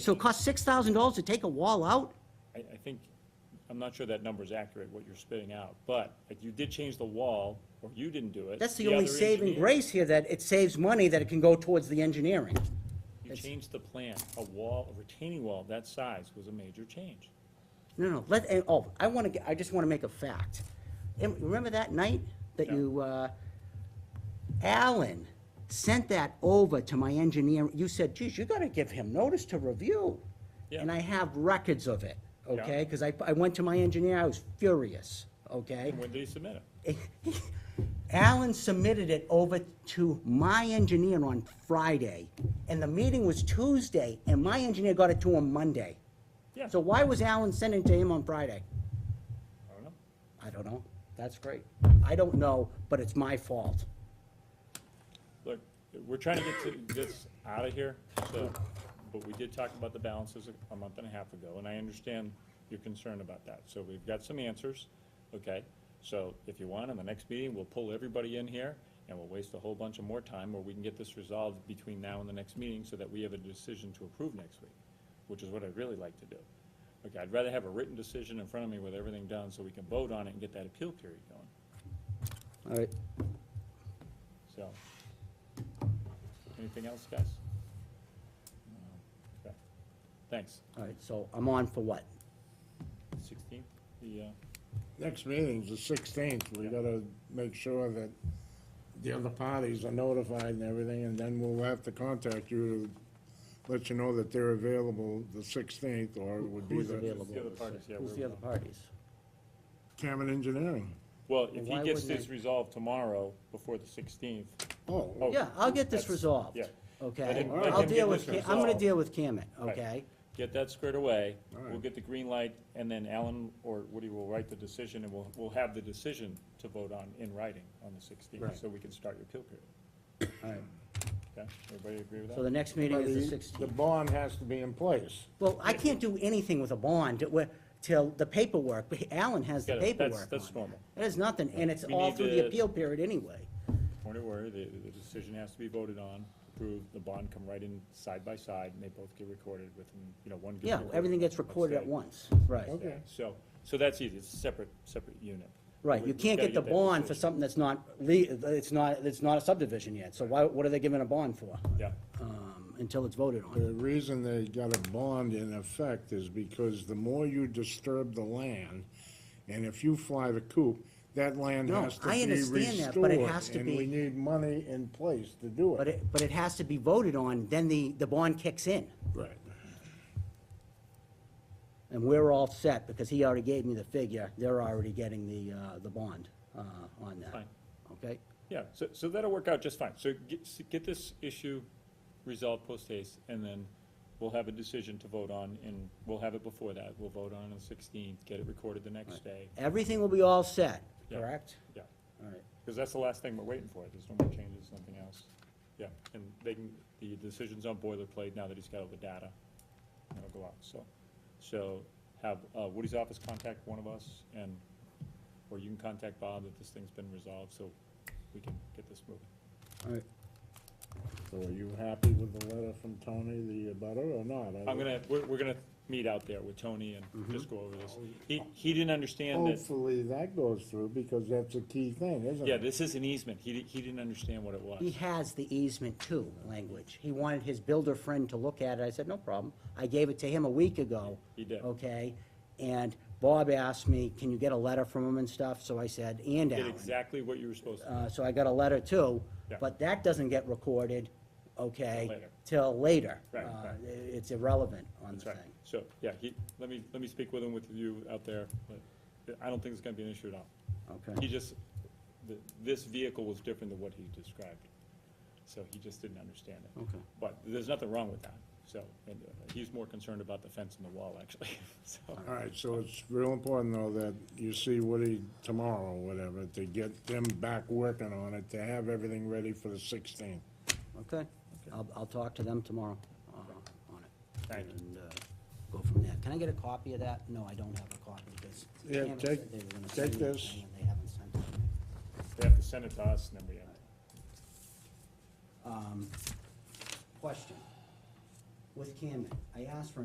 So it costs six thousand dollars to take a wall out? I, I think, I'm not sure that number's accurate, what you're spitting out, but like, you did change the wall, or you didn't do it. That's the only other saving engineer- grace here, that it saves money that it can go towards the engineering. You changed the plan. A wall, a retaining wall of that size was a major change. No, no, let, and- oh, I wanna, get- I just wanna make a fact. And remember that night that Yeah. you, uh, Alan sent that over to my engineer, you said, geez, you gotta give him notice to review. Yeah. And I have records of it, Yeah. okay? Cause I, I went to my engineer, I was furious, okay? And when did you submit it? Alan submitted it over to my engineer on Friday, and the meeting was Tuesday, and my engineer got it to him Monday. Yeah. So why was Alan sending it to him on Friday? I don't know. I don't know. That's great. I don't know, but it's my fault. Look, we're trying to get to this out of here, so, but we did talk about the balances a- a month and a half ago, and I understand your concern about that. So we've got some answers, okay? So if you want, in the next meeting, we'll pull everybody in here, and we'll waste a whole bunch of more time, or we can get this resolved between now and the next meeting so that we have a decision to approve next week, which is what I'd really like to do. Okay, I'd rather have a written decision in front of me with everything done, so we can vote on it and get that appeal period All going, right. so. Anything else, guys? No. Okay. Thanks. All right, so I'm on for what? Sixteenth, the, uh, Next meeting's the sixteenth, we gotta make sure that the other parties are notified and everything, and then we'll have to contact you to let you know that they're available the sixteenth, or it would be Who's the available? the other parties, yeah, Who's we're- the other parties? Cameron Engineering. well, if he Why gets wouldn't this they- resolved tomorrow, before the sixteenth. Oh, Yeah, I'll get this That's- resolved. yeah. Let Okay? him- let I'll him deal get with, this Ca- I'm gonna resolved. deal with Camet, Right. okay? Get that squared away, we'll right. get the green light, and then Alan or Woody will write the decision, and we'll, we'll have the decision to vote on in writing on the sixteenth, Right. so we can start your appeal period. All right. Okay, everybody agree with So that? the next meeting but is the- the The 16th. bond has to be in place. Well, I can't do anything with a bond we- till the paperwork, Alan has the Yeah, that's- paperwork on that's it. normal. It is nothing, and it's We all need through to- the appeal period anyway. Point of order, the, the decision has to be voted on, approved, the bond come right in side by side, and they both get recorded within, you know, one gets Yeah, recorded. everything gets let's recorded at say. once, right. Okay. So, so that's easy, it's a separate, separate unit. Right, We- you we've can't gotta get the that bond for decision. something that's not le, it's not, it's not a subdivision yet, so why, what are they giving a bond for? Yeah, Um, until it's voted on. The reason they got a bond in effect is because the more you disturb the land, and if you fly the coop, that land No, has to I be understand that, but it restored, has to and be- we need money in place to do it. But it, but it has to be voted on, then the, the bond kicks in, Right. and we're all set, because he already gave me the figure, they're already getting the, uh, the bond, uh, on that. Fine. Okay? yeah, so, so that'll work out just fine, so get, s- get this issue resolved post haste, and then we'll have a decision to vote on, and we'll have it before that, we'll vote on it on the sixteenth, get it recorded the next day, Everything will be all set, Yeah. correct? yeah. All right, Because that's the last thing we're waiting for, there's no more changes, nothing else. Yeah, and they can, the decision's on boilerplate now that he's got all the data, and it'll go out, so. So have uh, Woody's office contact one of us, and, or you can contact Bob if this thing's been resolved, so we can get this moving. all right. So are you happy with the letter from Tony, the abutter, or not? I'm gonna, we're, we're gonna meet out there with Tony and just go over this. He, he didn't understand Oh, that, Hopefully that goes through, because that's a key thing, isn't it? yeah, this is an easement, he, di- he didn't understand what it was. He has the easement too language. He wanted his builder friend to look at it. I said, no problem. I gave it to him a week ago. He did. Okay, and Bob asked me, can you get a letter from him and stuff? So I said, and Did Alan. exactly what you were supposed to, Uh, so I got a letter too, Yeah. but that doesn't get recorded, okay? Till Till later. later. Right, Uh, right. It's irrelevant on the That's right. thing. So, yeah, he, let me, let me speak with him, with you out there, but I don't think it's gonna be an issue at all. He Okay, just, th this vehicle was different than what he described, so he just didn't understand it. Okay. But there's nothing wrong with that, so, and uh, he's more concerned about the fence and the wall, actually, so. All right, so it's real important, though, that you see Woody tomorrow, or whatever, to get them back working on it, to have everything ready for the sixteenth. okay. I'll, I'll talk to them tomorrow uh, on it. Thank you. And, uh, go from there. Can I get a copy of that? No, I don't have a copy because. Yeah, Cameron take- said they were gonna take send me this. something and They haven't sent it to me. They have to send it to us, and then we have, Um, Question. Wh- with Cameron. I asked for